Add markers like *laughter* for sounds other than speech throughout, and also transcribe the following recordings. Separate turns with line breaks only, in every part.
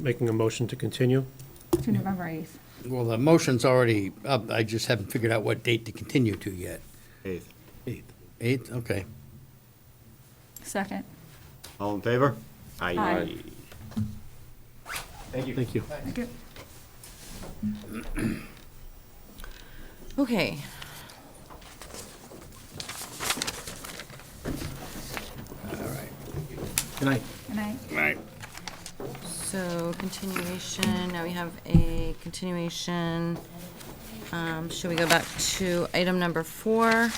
making a motion to continue?
to November 8th.
Well, the motion's already up, I just haven't figured out what date to continue to yet.
Eighth.
Eighth. Eighth, okay.
Second.
All in favor?
Aye.
Thank you.
Thank you.
Okay.
Good night.
And I,
So continuation, now we have a continuation. Um, Should we go back to item number four,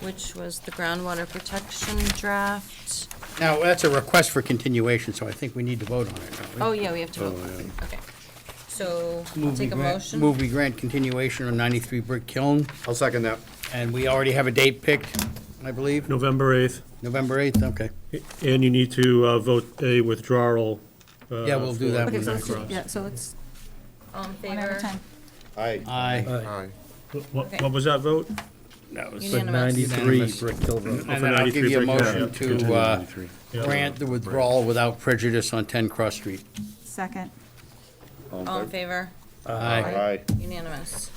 which was the groundwater protection draft?
Now, that's a request for continuation, so I think we need to vote on it, don't we?
Oh, yeah, we have to vote. Okay. So I'll
Move we
take a
grant-
motion.
Move we grant continuation on 93 Brick Kiln,
I'll second that.
and we already have a date picked, I believe,
November 8th,
November 8th, okay.
and you need to uh, vote a withdrawal. uh,
Yeah, we'll do
for-
that
okay,
one
so let's, do-
Cross.
yeah, so let's,
All in
one at a
favor?
time.
Aye.
Aye.
Aye. What, what was that vote?
That was-
Unanimous.
Brick And then I'll give you a
93
motion
Brick Hill.
to uh,
Yeah.
grant the withdrawal without prejudice on 10 Cross Street.
Second.
All in favor?
Uh,
Aye.
Unanimous.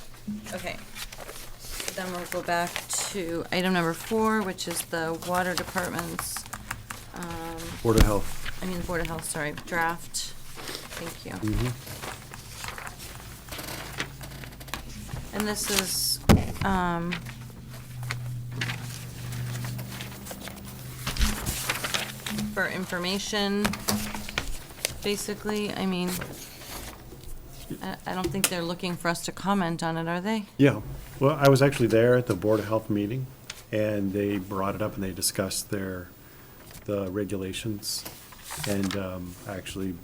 Okay. Then we'll go back to item number four, which is the water department's,
Board of Health.
I mean, Board of Health, sorry, draft. Thank you. And this is, um, for information, basically, I mean, I, I don't think they're looking for us to comment on it, are they?
Yeah, well, I was actually there at the Board of Health meeting, and they brought it up and they discussed their, the regulations, and um, actually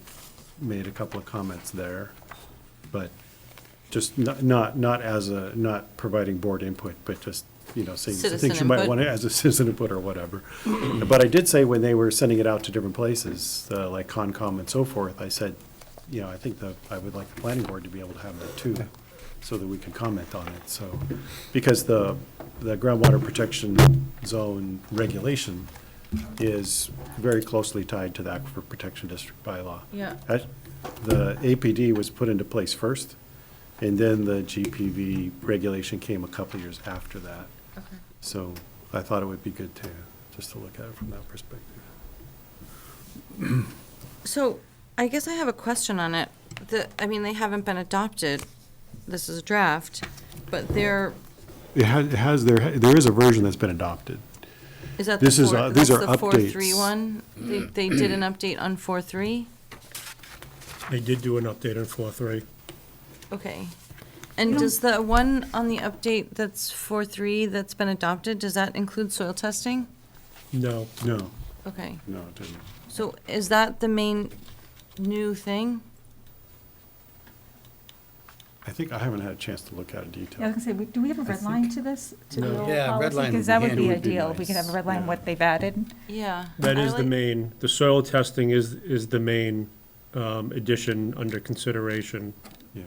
made a couple of comments there, but just not, not, not as a, not providing board input, but just, you know, saying some
Citizen
things you might
input.
want to, as a citizen input or whatever. But I did say when they were sending it out to different places, uh, like Concom and so forth, I said, you know, I think that I would like the planning board to be able to have that too, so that we can comment on it, so. Because the, the groundwater protection zone regulation is very closely tied to the Aquifer Protection District bylaw.
Yeah.
That- The APD was put into place first, and then the GPV regulation came a couple of years after that.
Okay.
So I thought it would be good to, just to look at it from that perspective.
So I guess I have a question on it. The, I mean, they haven't been adopted. This is a draft, but they're,
It has, it has, there, there is a version that's been adopted.
is that the
This is,
four,
uh, these
that's
are
the four, three
updates.
one? They, they did an update on four, three?
They did do an update on four, three.
Okay. And does the one on the update that's four, three that's been adopted, does that include soil testing?
No,
No,
Okay.
no, it didn't.
So is that the main new thing?
I think, I haven't had a chance to look at it
Yeah, I
in
was
detail.
gonna say, we- do we have a red line to this, to the
No.
old
Yeah, red
policy?
line
Because
would
that
be
would be
handy. Would be
ideal, if we could have a
nice,
red line,
yeah.
what they've added.
Yeah.
that
I
is the
like-
main, the soil testing is, is the main um, addition under consideration.
Yeah.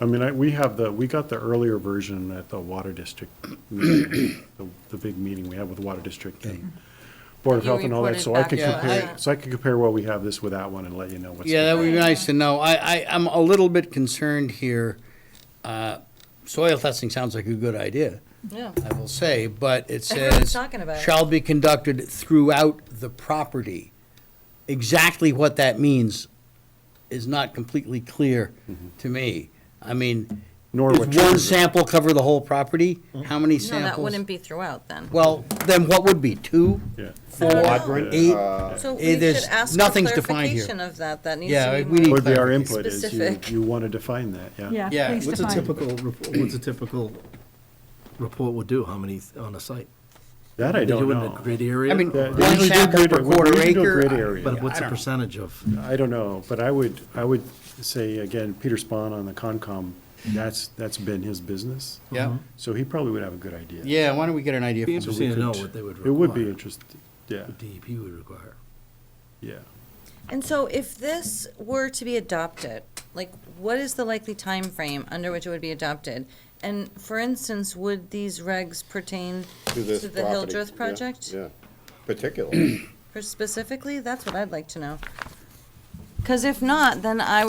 I mean, I, we have the, we got the earlier version at the Water
*clears throat*
District, meeting, the, the big meeting we had with Water District and Board of
You
Health and all that, so I
reported
could
back to
compare,
us.
so I could compare what we have this with that one and let you know what's.
Yeah, that
different.
would be nice to know. I, I, I'm a little bit concerned here. Uh, Soil testing sounds like a good idea,
Yeah.
I will say, but it
Everyone's
says.
talking about it.
Shall be conducted throughout the property. Exactly what that means is not completely clear to me. I mean,
Mm-hmm. Nor
does
what Mm-hmm.
one
triggers it.
sample cover the whole property? How many
No, that
samples?
wouldn't be throughout then.
Well, then what would be, two,
Yeah. Uh,
four,
Quadrant?
eight?
So we
eh,
should
there's-
ask for
nothing's defined here.
clarification of that. That needs
Yeah,
to
we
be
need
Would be our
clarification.
input is you,
Specific.
you want to define that, yeah.
Yeah,
Yeah,
please
What's a
define.
typical, rep- what's a typical report would do, how many on a site?
That I
They
don't
do it in
know.
a grid area?
I mean,
or-
They-
One
they usually do
sample
grid-
per
we
quarter
usually do a
acre?
grid
I-
area.
But what's
I
the
don't-
percentage of?
I don't know, but I would, I would say, again, Peter Spahn on the Concom, that's, that's been his business.
Yeah,
So he probably would have a good idea.
yeah, why don't we get an idea?
Be
from-
So we
interesting to know
could-
what they would
It would be
require.
interesting, yeah,
what DEP would require.
yeah.
And so if this were to be adopted, like, what is the likely time frame under which it would be adopted? And for instance, would these regs pertain to
this
the
property,
Hildreth
yeah,
project
Yeah, particularly.
For specifically? That's what I'd like to know. Because if not, then I would